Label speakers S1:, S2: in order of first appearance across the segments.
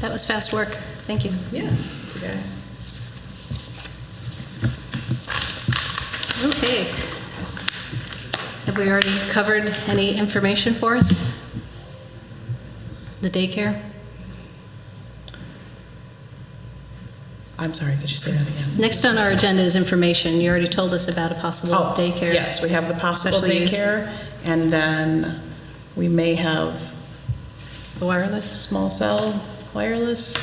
S1: That was fast work. Thank you.
S2: Yes, you guys.
S1: Okay. Have we already covered any information for us? The daycare?
S2: I'm sorry, could you say that again?
S1: Next on our agenda is information. You already told us about a possible
S2: Oh,
S1: daycare.
S2: Yes, we have the possible
S1: Special use.
S2: daycare, and then we may have
S1: The wireless?
S2: small cell wireless,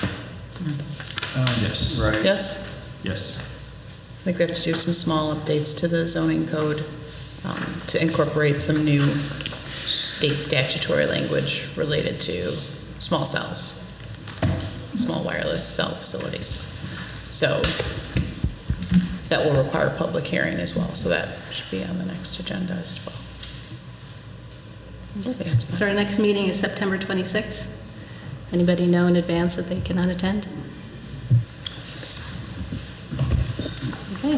S3: Yes. Right.
S2: yes?
S3: Yes.
S2: I think we have to do some small updates to the zoning code um, to incorporate some new state statutory language related to small cells, small wireless cell facilities. So that will require a public hearing as well, so that should be on the next agenda as well. I think that's about
S1: So our next meeting is September 26th. Anybody know in advance that they cannot attend? Okay.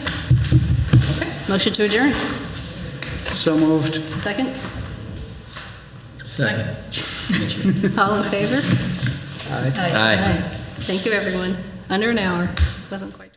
S1: Motion to adjourn.
S4: So moved.
S1: Second? All in favor?
S4: Aye.
S1: Aye. Thank you, everyone. Under an hour. Wasn't quite.